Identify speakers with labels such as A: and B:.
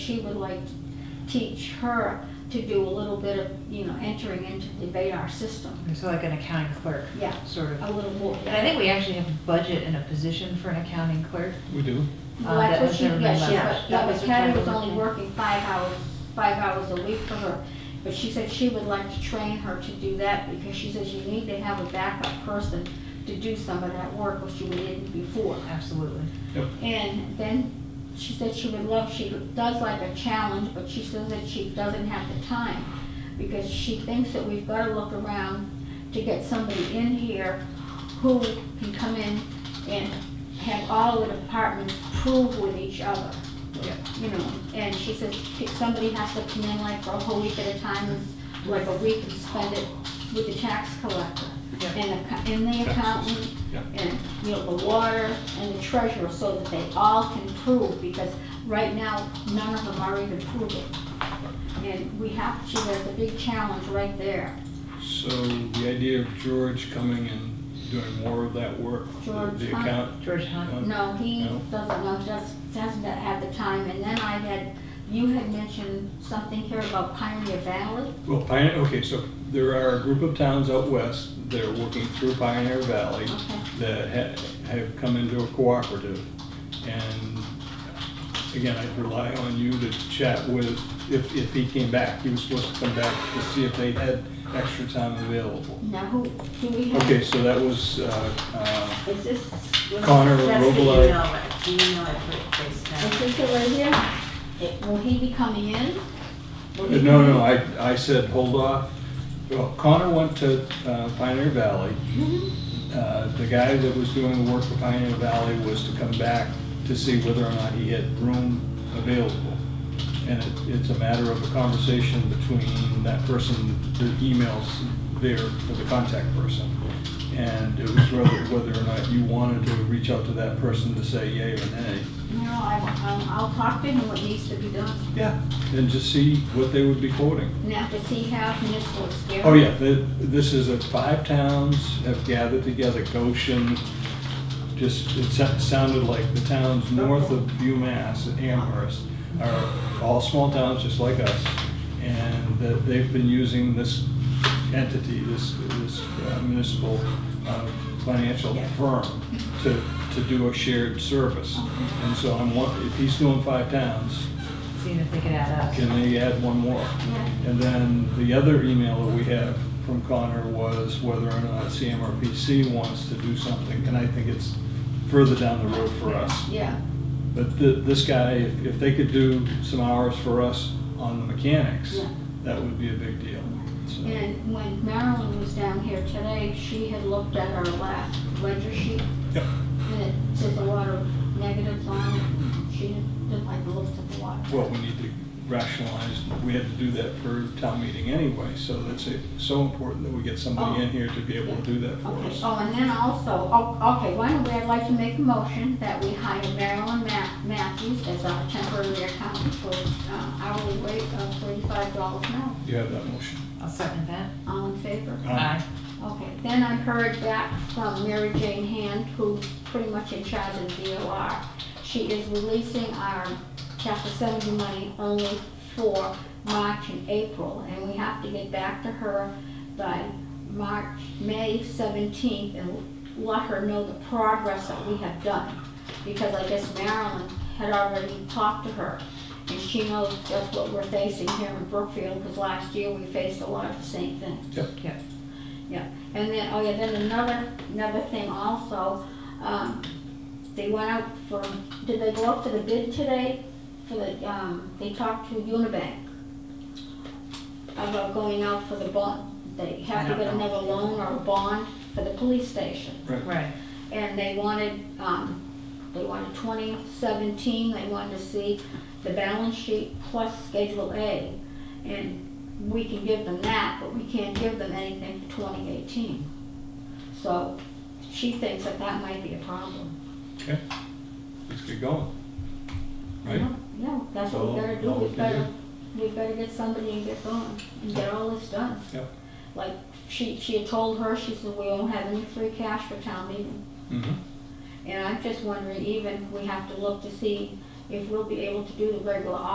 A: she would like to teach her to do a little bit of, you know, entering into the Vadar system.
B: So like an accounting clerk,
A: Yeah,
B: sort of.
A: a little more.
B: And I think we actually have a budget and a position for an accounting clerk.
C: We do.
A: Well,
B: uh,
A: that's
B: that
A: what
B: was
A: she,
B: never
A: yeah,
B: been
A: she,
B: left.
A: but,
B: That
A: yeah, but
B: was what
A: Patty
B: Patty
A: was
B: was
A: only
B: looking.
A: working five hours, five hours a week for her. But she said she would like to train her to do that because she says you need to have a backup person to do some of that work, which you didn't before.
B: Absolutely.
A: And then she said she would love, she does like a challenge, but she says that she doesn't have the time because she thinks that we've gotta look around to get somebody in here who can come in and have all the departments prove with each other.
B: Yeah.
A: You know, and she says if somebody has to come in like for a whole week at a time, it's like a week and spend it with the tax collector
B: Yeah.
A: and the, and the accountant
C: Yeah.
A: and, you know, the water and the treasurer, so that they all can prove, because right now, none of them are even proving. And we have, to. there's a big challenge right there.
C: So the idea of George coming and doing more of that work, the-
A: George,
C: the
A: huh?
C: account,
B: George Hunt.
C: Um,
A: No, he
C: No.
A: doesn't know, just doesn't have the time, and then I had, you had mentioned something here about Pioneer Valley.
C: well, Pioneer, okay, so there are a group of towns out west that are working through Pioneer Valley
A: Okay.
C: that ha- have come into a cooperative. And again, I'd rely on you to chat with, if, if he came back, he was supposed to come back to see if they had extra time available.
A: Now, who, do we have?
C: Okay, so that was, uh, uh,
D: Is this? was-
C: Connor
D: That's the
C: Robillard.
D: email, right? The email I put it placed
A: Is
D: down.
A: this it right here? Will he be coming in? Will he
C: Uh, No,
A: come in?
C: no, I, I said, hold off. Well, Connor went to uh, Pioneer Valley. Uh, The guy that was doing the work for Pioneer Valley was to come back to see whether or not he had room available. And it- it's a matter of a conversation between that person, the emails there for the contact person. And it was whether, whether or not you wanted to reach out to that person to say yay or nay.
A: No, I, um, I'll talk to him what needs to be done.
C: Yeah. And just see what they would be quoting.
A: Now, does he have municipal experience?
C: Oh, yeah, th- this is a, five towns have gathered together, Goshen, just, it sa- sounded like the towns north of UMass, Amherst, are all small towns just like us, and that they've been using this entity, this, this uh, municipal uh, financial firm to, to do a shared service. And so I'm, won- if he's doing five towns,
B: Seeing if they could add us.
C: can they add one more?
A: Yeah.
C: And then the other email that we have from Connor was whether or not CMRPC wants to do something, and I think it's further down the road for us.
A: Yeah,
C: But th- this guy, if if they could do some hours for us on the mechanics,
A: Yeah.
C: that would be a big deal. So-
A: and when Marilyn was down here today, she had looked at her last ledger sheet,
C: Yep.
A: and it says a lot of negatives on it. She didn't like the looks of the water.
C: Well, we need to rationalize, we had to do that for town meeting anyway, so that's it. so important that we get somebody in here to be able to do that for
A: Oh. Okay,
C: us.
A: oh, and then also, oh, okay, why don't we, I'd like to make a motion that we hire Marilyn Ma- Matthews as our temporary accountant for uh, hourly rate of thirty-five dollars an hour.
C: You have that motion.
B: I'll second that.
A: All in favor?
C: Um,
B: Aye.
A: Okay, then I heard back from Mary Jane Hand, who's pretty much in charge of DOR. She is releasing our chapter seventy money only for March and April, and we have to get back to her by March, May seventeenth, and let her know the progress that we have done. Because I guess Marilyn had already talked to her, and she knows just what we're facing here in Brookfield, because last year we faced a lot of the same thing.
B: Yep.
A: Yeah, and then, oh yeah, then another, another thing also, um, they went out for, did they go up for the bid today? For the, um, they talked to Unibank about going out for the bond, they have to
B: I don't
A: get
B: know.
A: another loan or a bond for the police station
B: Right.
A: and they wanted, um, they wanted twenty seventeen, they wanted to see the balance sheet plus Schedule A. And we can give them that, but we can't give them anything for twenty eighteen. So she thinks that that might be a problem.
C: Okay, let's get going. Right?
A: Yeah, that's what we
C: So,
A: gotta do,
C: all we
A: we
C: can
A: better,
C: do.
A: we better get somebody and get going, and get all this done.
C: Yep.
A: Like, she, she had told her, she said, we won't have any free cash for town meeting.
C: Mhm.
A: And I'm just wondering, even, we have to look to see if we'll be able to do the regular